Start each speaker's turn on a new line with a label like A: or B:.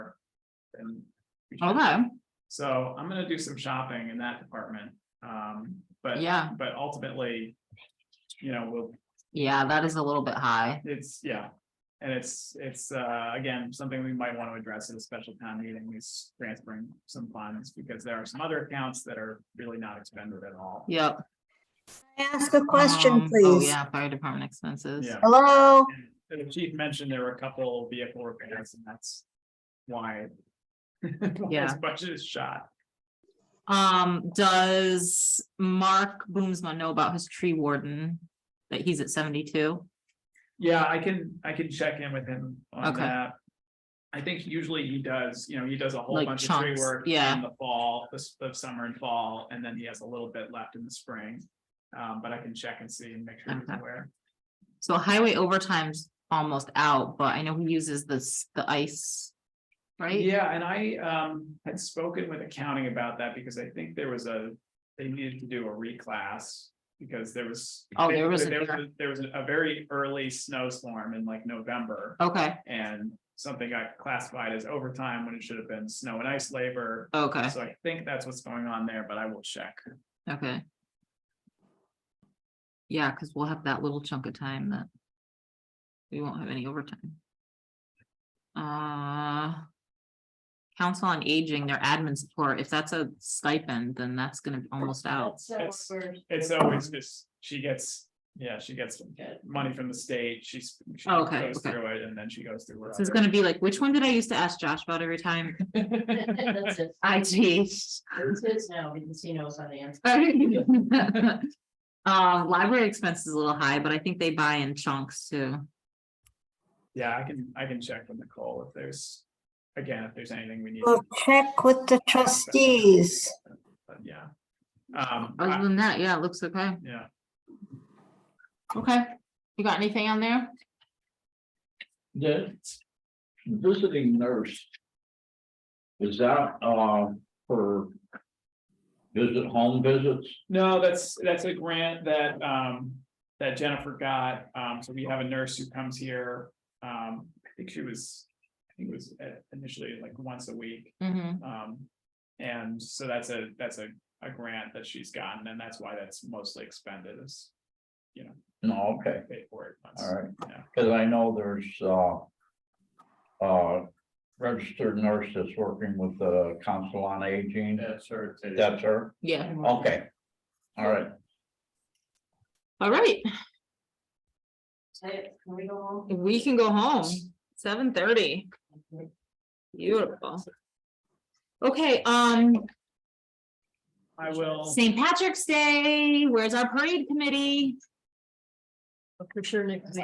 A: and. we should-
B: Okay,
A: So I'm gonna do some shopping in that department, um, but.
B: Yeah.
A: But ultimately, you know, we'll,
B: yeah, that is a little bit high.
A: it's, yeah. And it's, it's, uh, again, something we might want to address at a special town meeting is transferring some funds because there are some other accounts that are really not expended at all.
B: Yep.
C: May I Ask a question,
B: Um, Oh,
C: please.
B: yeah, fire department expenses.
A: Yeah.
C: Hello?
A: And the chief mentioned there were a couple vehicle repairs and that's why.
B: Yeah.
A: His budget is shot.
B: Um, does Mark Boomsma know about his tree warden? That he's at seventy-two?
A: Yeah, I can, I can check in with him on
B: Okay.
A: that. I think usually he does, you know, he does a whole
B: Like
A: bunch of tree
B: chunks,
A: work
B: yeah.
A: in the fall, the, s- the summer and fall, and then he has a little bit left in the spring. Um, but I can check and see and make sure he's
B: Okay.
A: aware.
B: So highway overtime's almost out, but I know he uses this, the ice. Right?
A: Yeah, and I, um, had spoken with accounting about that because I think there was a, they needed to do a reclass. Because there was.
B: Oh, there was a-
A: There was, a- there was a very early snowstorm in like November.
B: Okay,
A: And something got classified as overtime when it should have been snow and ice labor.
B: okay,
A: So I think that's what's going on there, but I will check.
B: okay. Yeah, because we'll have that little chunk of time that. We won't have any overtime. Uh. Council on Aging, their admin support, if that's a stipend, then that's gonna be almost out.
A: It's- It's always just, she gets, yeah, she gets money from the state, she's. she
B: Oh, Okay,
A: goes
B: okay.
A: Through it and then she goes through. her
B: This is
A: other-
B: gonna be like, which one did I used to ask Josh about every time? IT.
D: It's his now because he knows how to answer.
B: Um, library expense is a little high, but I think they buy in chunks too.
A: Yeah, I can, I can check with Nicole if there's, again, if there's anything we need,
C: We'll check with the trustees.
A: but yeah. Um, I-
B: Other than that, yeah, it looks okay.
A: yeah,
B: Okay, you got anything on there?
E: The visiting nurse. Is that, uh, for visit, home visits?
A: no, that's, that's a grant that, um, that Jennifer got, um, so we have a nurse who comes here. Um, I think she was, I think it was uh, initially like once a week.
B: Mm-hmm,
A: Um, and so that's a, that's a, a grant that she's gotten, and that's why that's mostly expended is. You know,
E: No, okay,
A: paid for it. once.
E: all right,
A: Yeah.
E: because I know there's, uh, uh, registered nurse that's working with the council on aging. That's her. That's her,
B: yeah,
E: okay. All right,
B: all right,
D: Say it, Can we go home?
B: we can go home, seven thirty, beautiful. Okay, um,
A: I
D: Oh.
A: will,
B: St. Patrick's Day, where's our parade committee?
D: For sure, Nick.